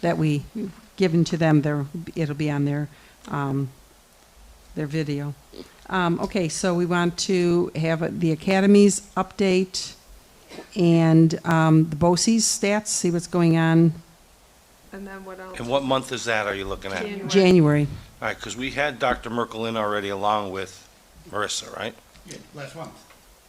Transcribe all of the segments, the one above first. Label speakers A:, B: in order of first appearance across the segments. A: that we given to them, there, it'll be on their, um, their video. Um, okay, so we want to have the academies update and, um, the BOCES stats, see what's going on
B: And then what else?
C: And what month is that are you looking at? All
B: January.
A: January.
C: right, because we had Dr. Merkel in already along with Marissa, right?
D: Yeah, last month.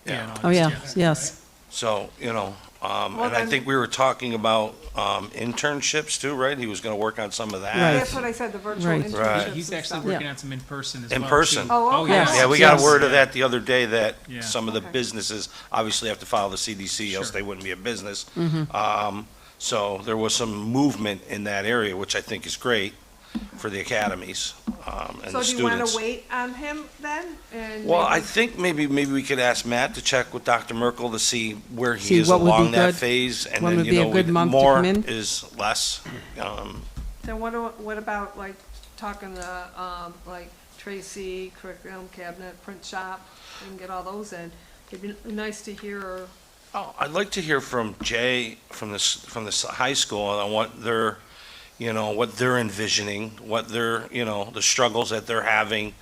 C: Yeah.
A: Oh, yeah, yes.
C: So, you know, um,
B: Well,
C: and I
B: then-
C: think we were talking about, um, internships too, right? He was gonna work on some of that.
A: Right.
B: That's what I said, the virtual
A: Right.
B: internships
C: Right.
B: and
E: He's actually
B: stuff.
E: working on some in person as well.
C: In person.
E: too.
B: Oh, okay.
E: yes.
C: Yeah, we got word of that the other day that
E: Yeah.
C: some of the
B: Okay.
C: businesses obviously have to follow the CDC, else
E: Sure. Mm-hmm.
C: they wouldn't be a business. Um, so there was some movement in that area, which I think is great for the academies, um, and
B: So
C: the
B: do you want
C: students.
B: to wait on him then? And
C: Well, I
B: maybe-
C: think maybe, maybe we could ask Matt to check with Dr. Merkel to see where
A: See
C: he is
A: what would be
C: along that
A: good,
C: phase. and
A: when
C: then
A: would
C: you
A: be a
C: know,
A: good
C: we-
A: month to
C: More
A: come in.
C: is less. um,
B: Then what, a- what about like talking to, um, like Tracy, curriculum cabinet, print shop, we can get all those in. It'd be nice to hear,
C: Oh, I'd like to hear from Jay, from this, from this high school, on what they're, you know, what they're envisioning, what they're, you know, the struggles that they're having,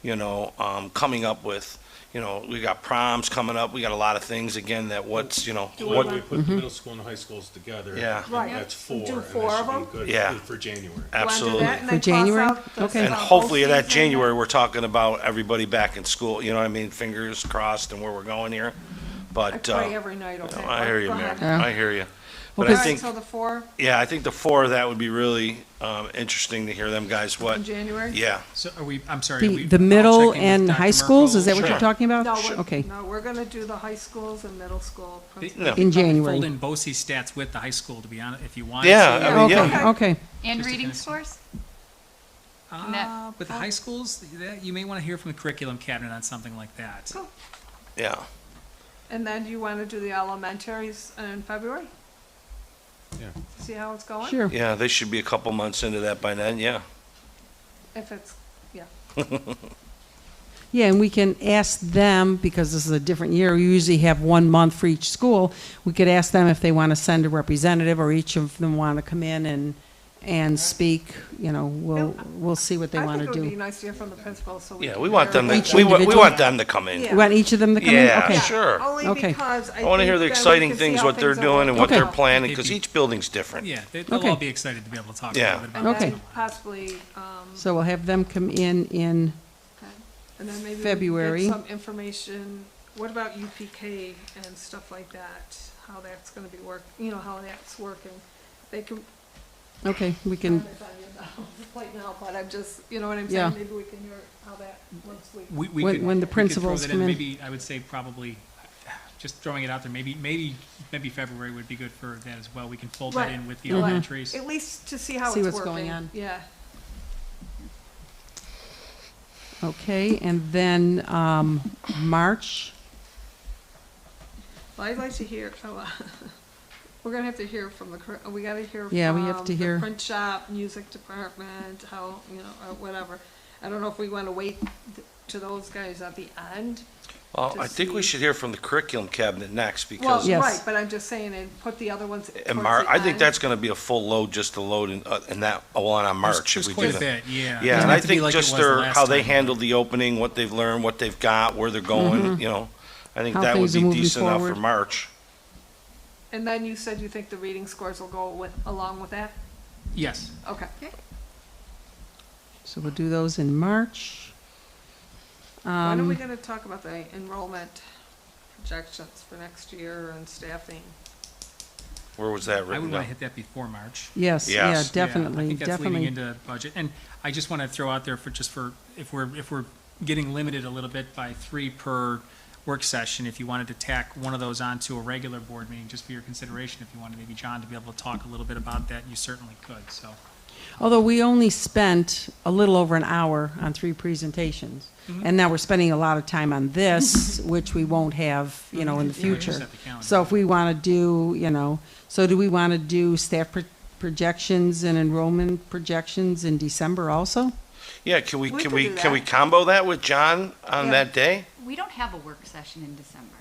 C: you know, um, coming up with. You know, we got proms coming up, we got a lot of things, again, that what's, you know,
F: What we
C: what,
F: put the middle school and high schools together.
C: Yeah.
F: and
B: Right.
F: That's
B: Do
F: four. and that
B: four
F: should
B: of
F: be
B: them?
F: good
C: Yeah.
F: For January.
B: you want to do
C: absolutely.
B: that? and then
A: For
B: cross
A: January?
B: out the
A: Okay.
B: stuff
C: And
B: on
C: hopefully
B: both
C: that
B: seats and
C: January, we're talking about everybody back in school, you know what I mean? Fingers crossed and where we're going here.
B: I
C: But,
B: pray
C: uh,
B: every night, okay?
C: I hear you,
B: Go
C: Mary.
B: ahead.
A: Yeah.
C: I hear you.
A: Well,
C: But
B: All
A: because-
C: I
B: right,
C: think,
B: so the four
C: yeah, I think the four, that would be really, um, interesting to hear them guys what,
B: in January?
C: yeah.
E: So are we, I'm sorry. are
A: The,
E: we-
A: the
E: I'll
A: middle
E: check in with
A: and
E: Dr.
A: high schools, is that
E: Merkel.
A: what you're
C: Sure.
A: talking about?
B: No, we're,
A: Okay,
B: no, we're gonna do the high schools and middle school. principal.
C: No.
A: in
E: Fold
A: January.
E: in BOCES stats with the high school, to be honest, if you want.
C: Yeah,
E: to.
C: I mean, yeah.
A: Okay, okay.
E: Just
G: And
E: to
G: reading
E: kinda see.
G: scores?
E: Uh, With the high schools, that, you may want to hear from the curriculum cabinet on something like that.
B: Cool.
C: Yeah,
B: And then do you wanna do the elementaries in February?
F: Yeah.
B: See how it's going?
A: Sure.
C: yeah, they should be a couple months into that by then, yeah.
B: If it's, yeah.
A: Yeah, and we can ask them, because this is a different year, we usually have one month for each school. We could ask them if they want to send a representative, or each of them want to come in and, and speak, you know, we'll, we'll see what they
B: I
A: want
B: think
A: to
B: it would be
A: do.
B: nice to hear from the principal, so we.
C: Yeah,
B: can
C: we want
B: hear
C: them, to
A: Each
C: we want, we
A: individual?
C: want them to come in.
B: Yeah.
A: You want each of them to come in?
C: Yeah,
A: Okay.
C: sure.
B: Only
A: Okay.
B: because I
C: I want to hear the
B: think then we
C: exciting
B: can see
C: things,
B: how
C: what they're
B: things are
C: doing and what
A: Okay.
C: they're
B: working out.
C: planning, because each building's different.
E: Yeah, they- they'll
A: Okay.
E: all be excited to be able to talk a
C: Yeah.
E: little bit about
B: And
E: that.
A: Okay.
B: then possibly, um,
A: So we'll have them come in in,
B: and then maybe we can
A: February.
B: get some information, what about UPK and stuff like that? How that's gonna be work, you know, how that's working. They can,
A: okay, we can,
B: comment on it right now, but I'm just, you know what I'm
A: Yeah.
B: saying? Maybe we can hear how that, once we.
E: We, we
A: When-
E: could,
A: when the
E: we could throw
A: principals
E: that
A: come in.
E: Maybe, I would say probably, just throwing it out there, maybe, maybe, maybe February would be good for that as well. We can fold that
B: Right.
E: in with the
B: Right.
A: Mm-hmm.
E: elementaries.
B: At least to see how it's
A: See
B: working.
A: what's going on.
B: Yeah.
A: okay, and then, um, March,
B: Well, I'd like to hear, oh, uh, we're gonna have to hear from the, cur- we gotta hear from.
A: Yeah, we have to
B: the
A: hear.
B: Print shop, music department, how, you know, or whatever. I don't know if we wanna wait th- to those guys at the end.
C: Well,
B: To
C: I think we
B: see-
C: should hear from the curriculum cabinet next,
B: Well,
C: because,
A: Yes.
B: right, but I'm just saying, and put the other ones towards the
C: and Mar, I think
B: end.
C: that's gonna be a full load, just to load in, uh, in that, one on
E: There's-
C: March, if
E: there's
C: we do that.
E: quite a bit, yeah. Doesn't
C: Yeah, and
E: have
C: I
E: to be
C: think
E: like it
C: just
E: was the
C: their,
E: last
C: how they
E: time.
C: handled the opening, what they've learned, what they've got, where they're going, you know? I think
A: How
C: that would
A: things are
C: be
A: moving
C: decent enough for
A: forward.
C: March.
B: And then you said you think the reading scores will go with, along with that?
E: Yes.
B: Okay.
A: so we'll do those in March.
B: When are
A: Um,
B: we gonna talk about the enrollment projections for next year and staffing?
C: Where was that
E: I would
C: written
E: want
C: down?
E: to hit that before March.
A: Yes, yeah,
C: Yes.
E: Yeah, I
A: definitely,
E: think that's leading
A: definitely.
E: into budget. And I just want to throw out there for, just for, if we're, if we're getting limited a little bit by three per work session, if you wanted to tack one of those onto a regular board meeting, just for your consideration, if you wanted maybe John to be able to talk a little bit about that, you certainly could, so.
A: Although we only spent a little over an hour on three presentations.
E: Mm-hmm.
A: And now we're spending a lot of time on this, which we won't have, you know, in the
E: Mm-hmm. Yeah, we just
A: future.
E: set the calendar.
A: So if we want to do, you know, so do we want to do staff pro- projections and enrollment projections in December also?
C: Yeah, can we,
B: We
C: can
B: could
C: we,
B: do
C: can we
B: that.
C: combo that with John on
B: Yeah.
C: that day?
G: We don't have a work session in December.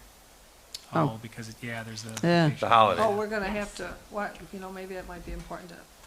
A: Oh.
E: Oh, because, it- yeah, there's the.
A: Yeah.
C: The holiday.
B: Oh, we're gonna have to, what, you know, maybe that might be important to